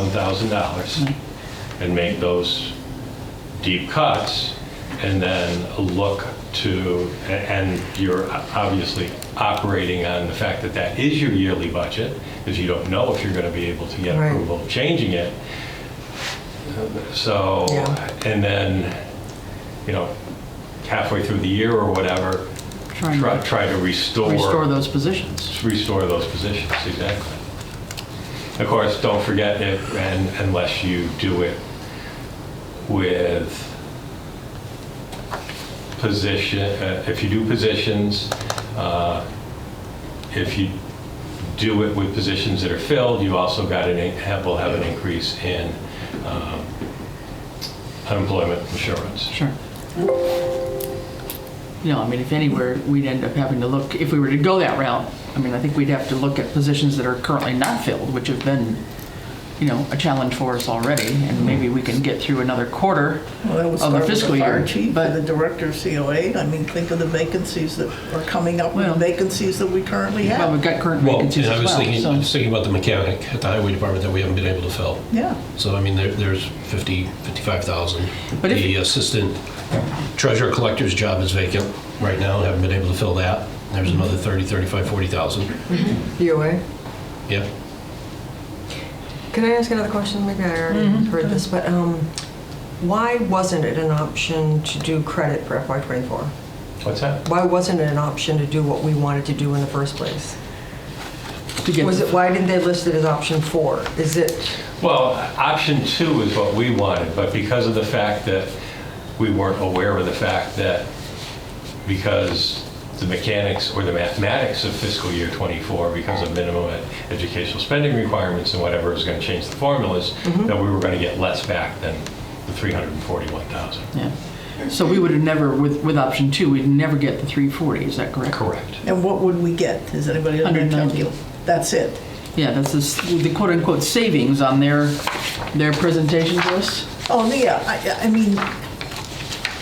$341,000 and make those deep cuts and then look to, a- and you're obviously operating on the fact that that is your yearly budget, because you don't know if you're going to be able to get Right. approval of changing it. So, Yeah. and then, you know, halfway through the year or whatever, Trying try to try to restore restore those positions. restore those positions, exactly. Of course, don't forget it, and unless you do it with position, uh, if you do positions, uh, if you do it with positions that are filled, you also got an, in- have- will have an increase in um, unemployment insurance. Sure. You know, I mean, if anywhere, we'd end up having to look, if we were to go that route, I mean, I think we'd have to look at positions that are currently not filled, which have been, you know, a challenge for us already, and maybe we can get through another quarter Well, that would of start the with fiscal fire year. chief and the But, director of COA. I mean, think of the vacancies that are coming up, with Well- the vacancies that we currently well, have. we've got current Well, vacancies and I as was thinking, I well, was so. thinking about the mechanic at the highway department that we haven't been able to fill. Yeah, So, I mean, there, there's 50, 55,000. But if- The assistant treasurer collector's job is vacant right now, and haven't been able to fill that. There's another 30, 35, 40,000. DOA. Yeah. Can I ask another question? Maybe I already Mm-hmm. heard this, but um, why wasn't it an option to do credit for FY24? What's that? Why wasn't it an option to do what we wanted to do in the first place? to get- Was it, why didn't they list it as option four? Is it, Well, option two is what we wanted, but because of the fact that we weren't aware of the fact that because the mechanics or the mathematics of fiscal year '24, because of minimum ed- educational spending requirements and whatever is going to change the formulas, that we were going to get less back than the 341,000. yeah. So we would have never, with, with option two, we'd never get the 340, is that correct? Correct. and what would we get? Is anybody able to 190. calculate? That's it. Yeah, that's this- the quote-unquote savings on their, their presentation to us. Oh, yeah, I, I mean,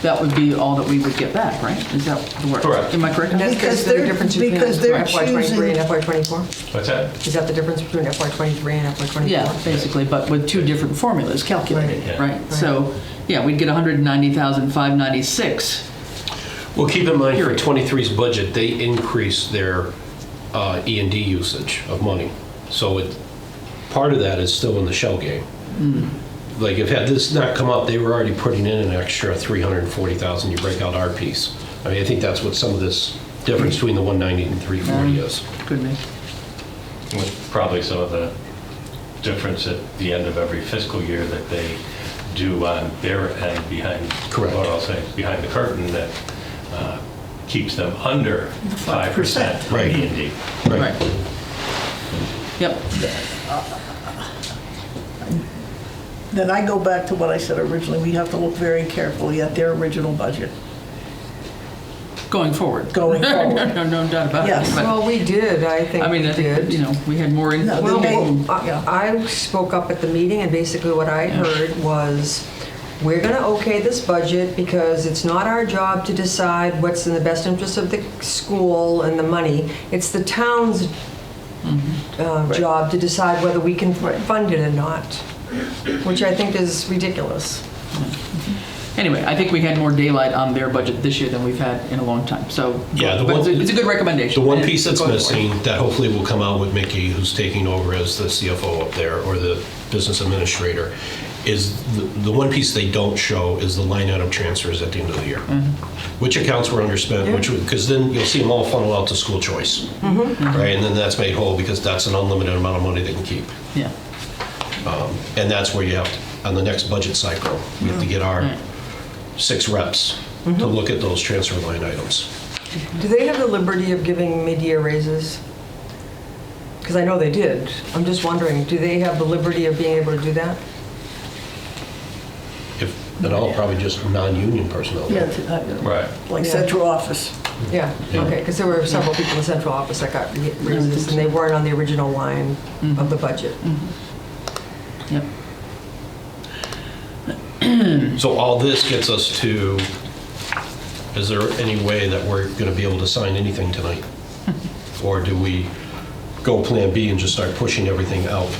That would be all that we would get back, right? Is that the word? Correct. Am I correct? on and that? that's Because basically the they're- difference between because they're FY23 and choosing- FY24? What's that? Is that the difference between FY23 and FY24? Yeah, basically, but with two different formulas calculated, Right. right? So, yeah, we'd get 190,596. Well, keep in mind, here at 23's budget, they increased their uh, E and D usage of money. So it, part of that is still in the shell game. Like, if had this not come up, they were already putting in an extra 340,000, you break out our piece. I mean, I think that's what some of this difference between the 190 and 340 is. Could be. With probably some of the difference at the end of every fiscal year that they do on their end behind, Correct. what I'll say, behind the curtain that uh, keeps them under 5% Right. E and D. Right. Yep, then I go back to what I said originally. We have to look very carefully at their original budget going forward. going forward. No, no doubt about it. Yes. but, Well, we did, I think I mean, we I think, that, did. you know, we had more. in- No, we had- they- Well, Yeah. I I spoke up at the meeting, and basically what I heard was, we're going to okay this budget because it's not our job to decide what's in the best interest of the school and the money. It's the town's uh, job to decide whether we can fund it or not, which I think is ridiculous. Anyway, I think we had more daylight on their budget this year than we've had in a long time, so. Yeah, the but it's a- one- It's a good recommendation. The one and piece it's that's going forward. missing, that hopefully will come out with Mickey, who's taking over as the CFO up there, or the business administrator, is the, the one piece they don't show is the line item transfers at the end of the year. Which accounts were underspent, which, because then you'll see them all funnel out to school choice. Right, and then that's made whole, because that's an unlimited amount of money they can keep. Yeah, And that's where you have, to- on the next budget cycle, we have to get our six reps to look at those transfer line items. Do they have the liberty of giving mid-year raises? Because I know they did. I'm just wondering, do they have the liberty of being able to do that? If, at all, probably just non-union personnel. Yeah, t- uh, Right. Like Yeah. central office. Yeah, Yeah. okay, because there were several people in the central office that got ra- raises, and they weren't on the original line of the budget. yep. So all this gets us to, is there any way that we're going to be able to sign anything tonight? Or do we go Plan B and just start pushing everything out?